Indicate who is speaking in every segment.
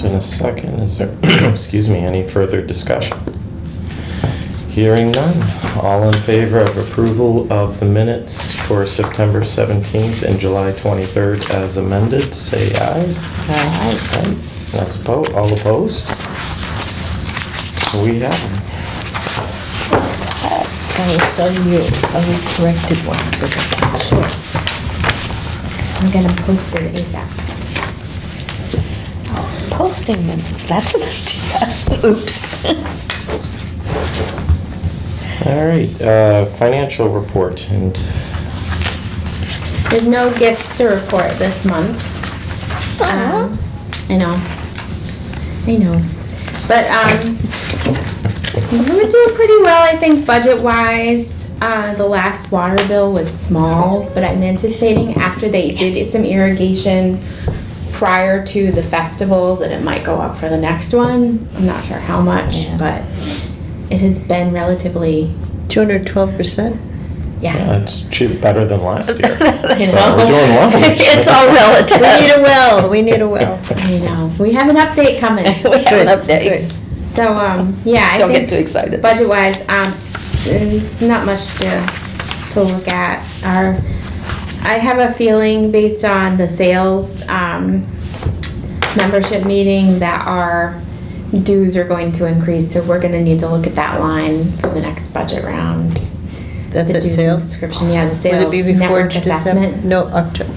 Speaker 1: In a second, is there, excuse me, any further discussion? Hearing none, all in favor of approval of the minutes for September 17th and July 23rd as amended, say aye. Aye. That's opposed, all opposed? We have them.
Speaker 2: I sell you a corrected one for the
Speaker 3: Sure. I'm gonna post it ASAP.
Speaker 2: Posting minutes, that's an idea. Oops.
Speaker 1: All right, uh, financial report and,
Speaker 3: There's no gifts to report this month. Um, I know. I know. But, um, we were doing pretty well, I think, budget-wise. Uh, the last water bill was small, but I'm anticipating after they did some irrigation prior to the festival, that it might go up for the next one. I'm not sure how much,
Speaker 2: Yeah.
Speaker 3: but it has been relatively,
Speaker 2: Two hundred twelve percent?
Speaker 3: yeah.
Speaker 1: yeah, it's cheap, better than last year. So we're
Speaker 2: You
Speaker 1: doing
Speaker 2: know?
Speaker 1: well.
Speaker 2: It's all relative. We need a will, we need a will.
Speaker 3: I know. We have an update coming.
Speaker 2: We have an update.
Speaker 3: So, um, yeah, I
Speaker 2: Don't get
Speaker 3: think
Speaker 2: too excited.
Speaker 3: budget-wise, um, there's not much to, to look at. Our, I have a feeling based on the sales, um, membership meeting that our dues are going to increase, so we're gonna need to look at that line for the next budget round.
Speaker 4: That's
Speaker 3: The
Speaker 4: at
Speaker 3: dues and
Speaker 4: sales?
Speaker 3: Subscription, yeah, the
Speaker 4: Would it be
Speaker 3: sales
Speaker 4: before
Speaker 3: network
Speaker 4: December?
Speaker 3: assessment.
Speaker 4: No, October,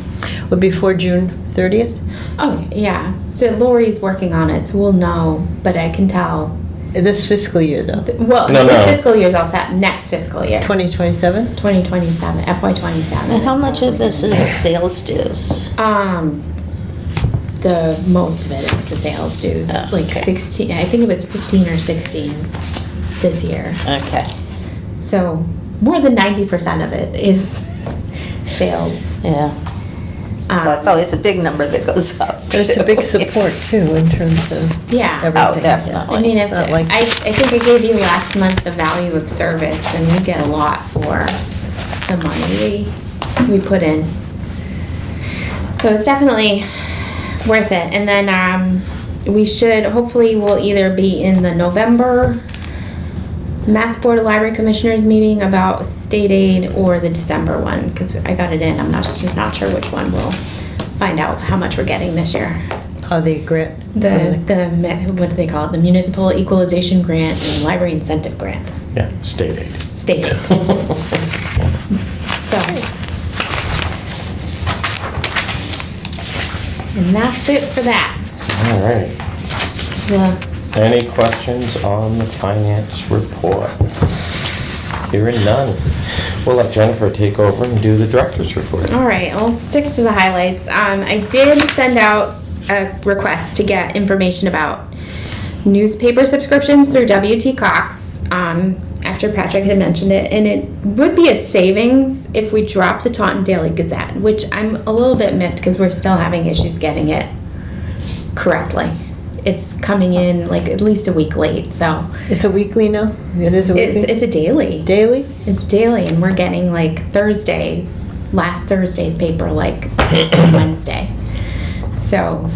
Speaker 4: would be before June 30th?
Speaker 3: Oh, yeah, so Lori's working on it, so we'll know, but I can tell,
Speaker 4: This fiscal year, though,
Speaker 3: well,
Speaker 1: No,
Speaker 3: this
Speaker 1: no.
Speaker 3: fiscal year's all set, next fiscal year.
Speaker 4: 2027?
Speaker 3: 2027, FY 27.
Speaker 2: And how much of this is sales dues?
Speaker 3: Um, the most of it is the sales dues,
Speaker 2: Oh,
Speaker 3: like
Speaker 2: okay.
Speaker 3: 16, I think it was 15 or 16 this year.
Speaker 2: Okay,
Speaker 3: So more than 90% of it is sales.
Speaker 2: yeah. So
Speaker 3: Um,
Speaker 2: it's always a big number that goes up.
Speaker 4: There's a big support, too, in terms of
Speaker 3: Yeah. Oh,
Speaker 4: everything.
Speaker 2: Oh, definitely.
Speaker 3: I mean, if,
Speaker 4: Not
Speaker 3: I,
Speaker 4: like-
Speaker 3: I think I gave you last month the value of service, and we get a lot for the money we, we put in. So it's definitely worth it, and then, um, we should, hopefully, we'll either be in the November Mass Board of Library Commissioners meeting about state aid or the December one, because I got it in, I'm not, just not sure which one, we'll find out how much we're getting this year.
Speaker 4: Oh, the grant. from
Speaker 3: The, the, me- what do they call it, the municipal equalization grant and library incentive grant,
Speaker 1: Yeah, state aid.
Speaker 3: state aid. So. And that's it for that.
Speaker 1: All right.
Speaker 3: The-
Speaker 1: Any questions on the finance report? Hearing none. We'll let Jennifer take over and do the director's report.
Speaker 3: All right, I'll stick to the highlights. Um, I did send out a request to get information about newspaper subscriptions through WT Cox, um, after Patrick had mentioned it, and it would be a savings if we drop the Taunton Daily Gazette, which I'm a little bit miffed because we're still having issues getting it correctly. It's coming in like at least a week late, so
Speaker 4: the- It's a weekly now? It is a
Speaker 3: it's,
Speaker 4: weekly?
Speaker 3: it's a daily.
Speaker 4: Daily?
Speaker 3: It's daily, and we're getting like Thursdays, last Thursday's paper, like Wednesday. So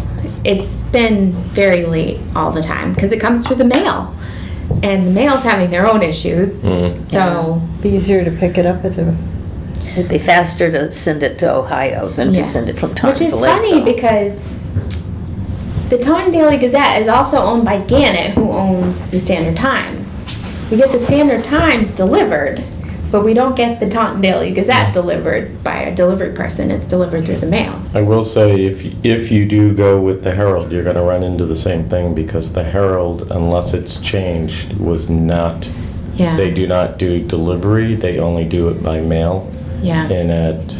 Speaker 3: it's been very late all the time because it comes through the mail, and the mail's having their own issues.
Speaker 4: Mm-hmm.
Speaker 1: Mm.
Speaker 3: So
Speaker 4: Be easier to pick it up at the,
Speaker 2: It'd be faster to send it to Ohio than
Speaker 3: Yeah.
Speaker 2: to send it from
Speaker 3: which
Speaker 2: Taunton
Speaker 3: is
Speaker 2: to
Speaker 3: funny
Speaker 2: Lakeville.
Speaker 3: because the Taunton Daily Gazette is also owned by Gannett, who owns the Standard Times. We get the Standard Times delivered, but we don't get the Taunton Daily Gazette delivered by a delivery person. It's delivered through the mail.
Speaker 1: I will say, if, if you do go with the Herald, you're gonna run into the same thing because the Herald, unless it's changed, was not,
Speaker 3: Yeah.
Speaker 1: they do not do delivery, they only do it by mail.
Speaker 3: Yeah.
Speaker 1: And at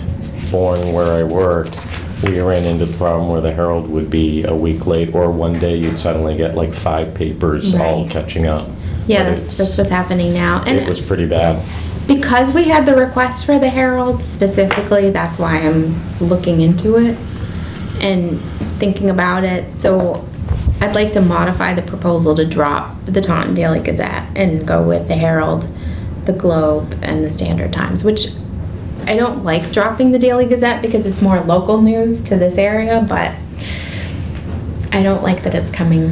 Speaker 1: Bourne, where I worked, we ran into the problem where the Herald would be a week late, or one day you'd suddenly get like five papers all
Speaker 3: Right.
Speaker 1: catching up.
Speaker 3: Yeah,
Speaker 1: But
Speaker 3: that's,
Speaker 1: it's-
Speaker 3: that's what's happening now.
Speaker 1: It was
Speaker 3: And
Speaker 1: pretty bad.
Speaker 3: because we had the request for the Herald specifically, that's why I'm looking into it and thinking about it. So I'd like to modify the proposal to drop the Taunton Daily Gazette and go with the Herald, the Globe, and the Standard Times, which I don't like dropping the Daily Gazette because it's more local news to this area, but I don't like that it's coming